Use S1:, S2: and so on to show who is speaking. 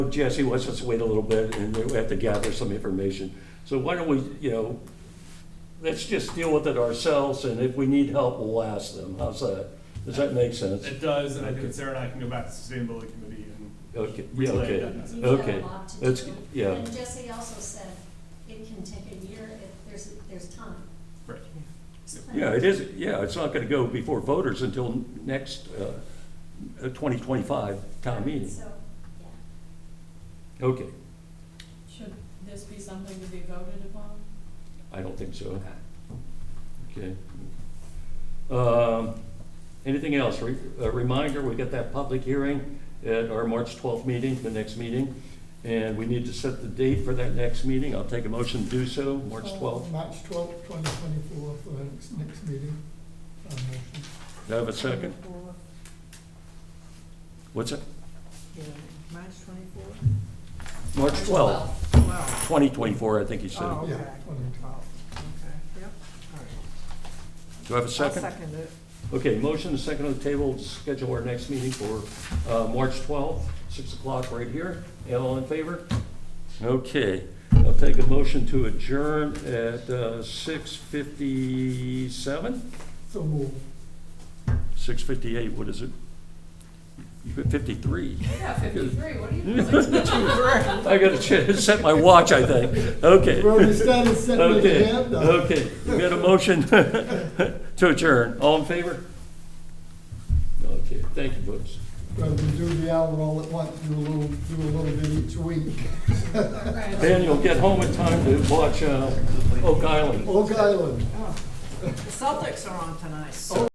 S1: Jesse wants us to wait a little bit, and we have to gather some information. So why don't we, you know, let's just deal with it ourselves, and if we need help, we'll ask them. How's that? Does that make sense?
S2: It does, and I think Sarah and I can go back to sustainability committee
S1: Okay,
S2: and
S1: yeah,
S2: relay
S1: okay.
S2: that message.
S3: You've got a
S1: Okay,
S3: lot to
S1: that's-
S3: do.
S1: yeah.
S3: And Jesse also said it can take a year if there's, there's time.
S2: Right.
S3: It's
S1: Yeah,
S3: plenty.
S1: it is, yeah, it's not gonna go before voters until next, uh, twenty twenty-five town meeting.
S3: So, yeah.
S1: Okay,
S4: Should this be something to be voted upon?
S1: I don't think so. Okay. Um, Anything else? Re- A reminder, we got that public hearing at our March 12th meeting, the next meeting, and we need to set the date for that next meeting. I'll take a motion to do so, March
S5: Uh,
S1: 12th.
S5: March twelfth, twenty twenty-four, for the next, next meeting. Uh, motion.
S1: Do I have a second? What's it?
S6: Yeah, March twenty-four?
S1: March 12th,
S6: Twelve.
S1: 2024, I think you said.
S6: Oh, okay.
S5: Yeah, 22.
S6: Twelve, okay, yep, all right.
S1: Do I have a
S6: I'll
S1: second?
S6: second it.
S1: Okay, motion and second on the table, to schedule our next meeting for uh, March 12th, 6 o'clock right here. All in favor? Okay, I'll take a motion to adjourn at uh, 6:57?
S5: So move.
S1: 6:58, what is it? You got 53.
S4: Yeah, fifty-three, what do you?
S1: I gotta ch- set my watch, I think. Okay.
S5: Well, we started setting it
S1: Okay,
S5: again, uh,
S1: okay, we got a motion to adjourn. All in favor? Okay, thank you, folks.
S5: Rather than do the hour all at once, do a little, do a little bit each week.
S1: Then you'll get home in time to watch uh, Oak Island.
S5: Oak Island.
S6: The Celtics are on tonight, so.